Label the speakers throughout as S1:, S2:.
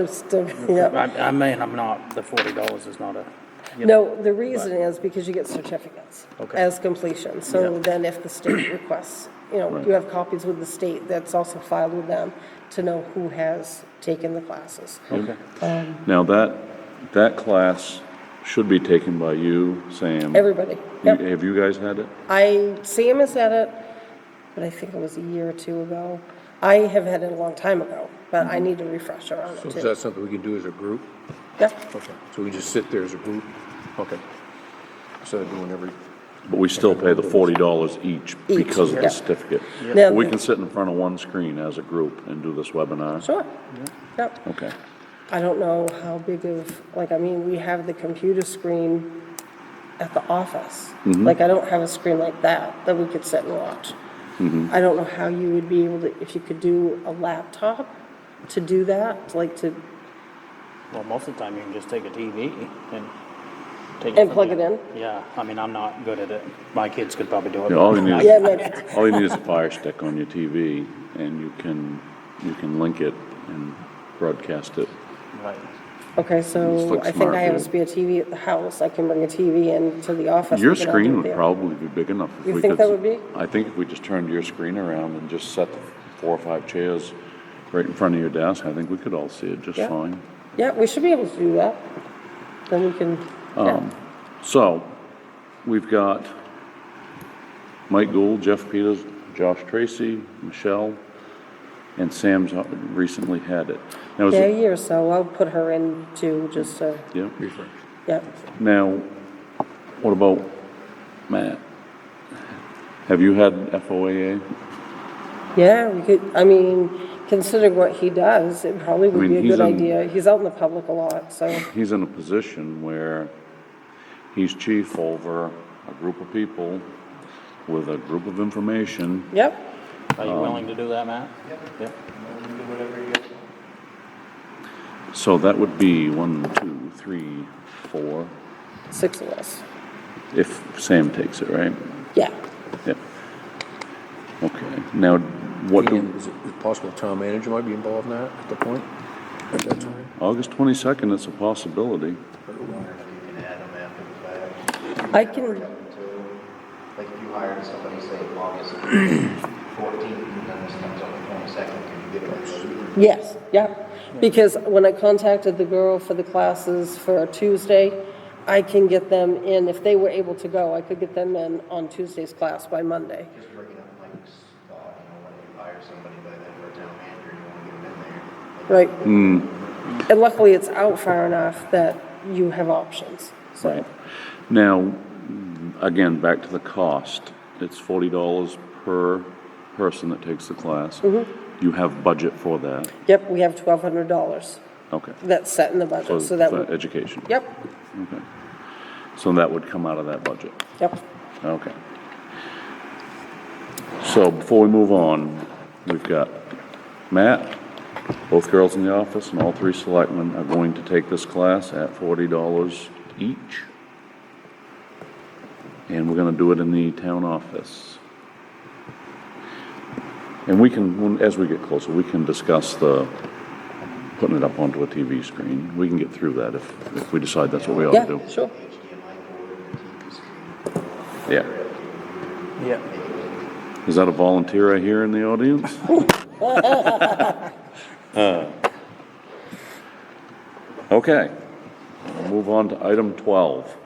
S1: uh, Yep.
S2: I, I mean, I'm not, the forty dollars is not a, you know,
S1: No, the reason is because you get certificates
S2: Okay.
S1: as completion. So
S2: Yeah.
S1: then if the state requests, you know, you have copies with the state that's also filed with them to know who has taken the classes.
S2: okay.
S3: Now, that, that class should be taken by you, Sam.
S1: Everybody.
S3: You-
S1: Yep.
S3: Have you guys had it?
S1: I, Sam has had it, but I think it was a year or two ago. I have had it a long time ago, but I need a refresher on
S4: So
S1: it
S4: is
S1: too.
S4: that something we can do as a group?
S1: Yeah.
S4: Okay, so we just sit there as a group? Okay. Instead of doing every,
S3: But we still pay the forty dollars each
S1: Each,
S3: because of
S1: yeah.
S3: the certificate.
S1: Now-
S3: We can sit in front of one screen as a group and do this webinar?
S1: Sure. Yep.
S3: Okay.
S1: I don't know how big of, like, I mean, we have the computer screen at the office.
S3: Mm-hmm.
S1: Like, I don't have a screen like that that we could sit and watch.
S3: Mm-hmm.
S1: I don't know how you would be able to, if you could do a laptop to do that, like to,
S2: Well, most of the time you can just take a TV and take it.
S1: And
S2: from
S1: plug
S2: your-
S1: it in?
S2: Yeah, I mean, I'm not good at it. My kids could probably do it.
S3: Yeah, all you
S2: but
S3: need
S2: I-
S3: is-
S1: yeah, like,
S3: All you need is a fire stick on your TV and you can, you can link it and broadcast it.
S2: Right.
S1: okay,
S3: Just
S1: so
S3: look
S1: I think
S3: smart,
S1: I have a
S3: dude.
S1: spare TV at the house. I can bring a TV in to the office.
S3: Your
S1: We can all do it
S3: screen would
S1: there.
S3: probably be big enough. if
S1: You
S3: we
S1: think
S3: could-
S1: that would be?
S3: I think if we just turned your screen around and just set the four or five chairs right in front of your desk, I think we could all see it just
S1: Yeah.
S3: fine.
S1: Yeah, we should be able to do that. Then we can,
S3: Um,
S1: yeah.
S3: So, we've got Mike Gould, Jeff Peters, Josh Tracy, Michelle, and Sam's recently had it. Now, is
S1: Yeah,
S3: it,
S1: a year or so. I'll put her in too, just so,
S3: yeah,
S1: yeah.
S3: now, what about Matt? Have you had FOAA?
S1: Yeah, we could, I mean, considering what he does, it probably would
S3: mean,
S1: be a
S3: he's
S1: good
S3: in-
S1: idea. He's out in the public a lot, so,
S3: He's in a position where he's chief over a group of people with a group of information.
S1: yep.
S2: Are
S3: Um,
S2: you willing to do that, Matt? Yep.
S3: So that would be one, two, three, four,
S1: Six of us.
S3: if Sam takes it, right?
S1: Yeah.
S3: Yep. Okay, now, what
S4: and
S3: do,
S4: is it is it possible town manager might be involved in that at the point? At that time?
S3: August twenty-second, it's a possibility.
S5: You can add them after the
S1: I can,
S5: fact, too. Like if you hired somebody, say, August fourteenth, and then this comes on the twenty-second, can you give them a week?
S1: yes, yep. Because when I contacted the girl for the classes for Tuesday, I can get them in, if they were able to go, I could get them in on Tuesday's class by Monday.
S5: Just bringing up Mike's thought, uh, you know, when you hire somebody by then, or a town manager, you wanna get them in there. like,
S1: Right. And luckily, it's out far enough that you have options, so.
S3: Now, again, back to the cost. It's forty dollars per person that takes the class. You have budget for that,
S1: Yep, we have twelve hundred dollars
S3: okay.
S1: that's set in the budget, so that
S3: for
S1: would,
S3: Education.
S1: yep,
S3: Okay. So that would come out of that budget,
S1: yep.
S3: okay. So before we move on, we've got Matt, both girls in the office, and all three selectmen are going to take this class at forty dollars each. And we're gonna do it in the town office. And we can, when- as we get closer, we can discuss the, putting it up onto a TV screen. We can get through that if, if we decide that's what we ought to
S1: Yeah,
S3: do.
S1: sure.
S5: HDMI cord and TV screen.
S3: Yeah.
S2: Yep.
S3: Is that a volunteer I hear in the audience? Uh, Okay, we'll move on to item 12.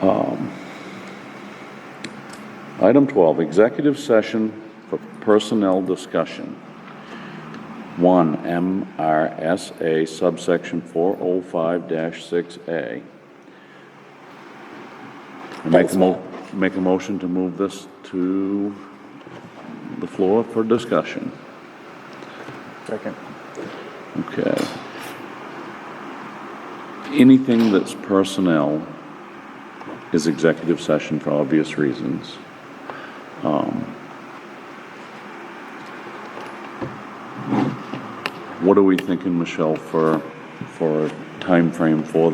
S3: Um, Item 12, executive session for personnel discussion. 1 MRSA subsection 405-6A. I Make
S1: Thanks,
S3: a mo, make a motion to move this to the floor for discussion.
S2: Second.
S3: Okay. Anything that's personnel is executive session for obvious reasons. Um, What are we thinking, Michelle, for, for a frame for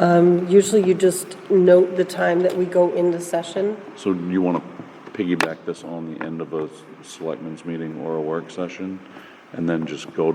S3: that?
S1: Usually you just note the time that we go into session.
S3: So do you want to piggyback this on the end of a s- selectmen's meeting or a work session? and then just go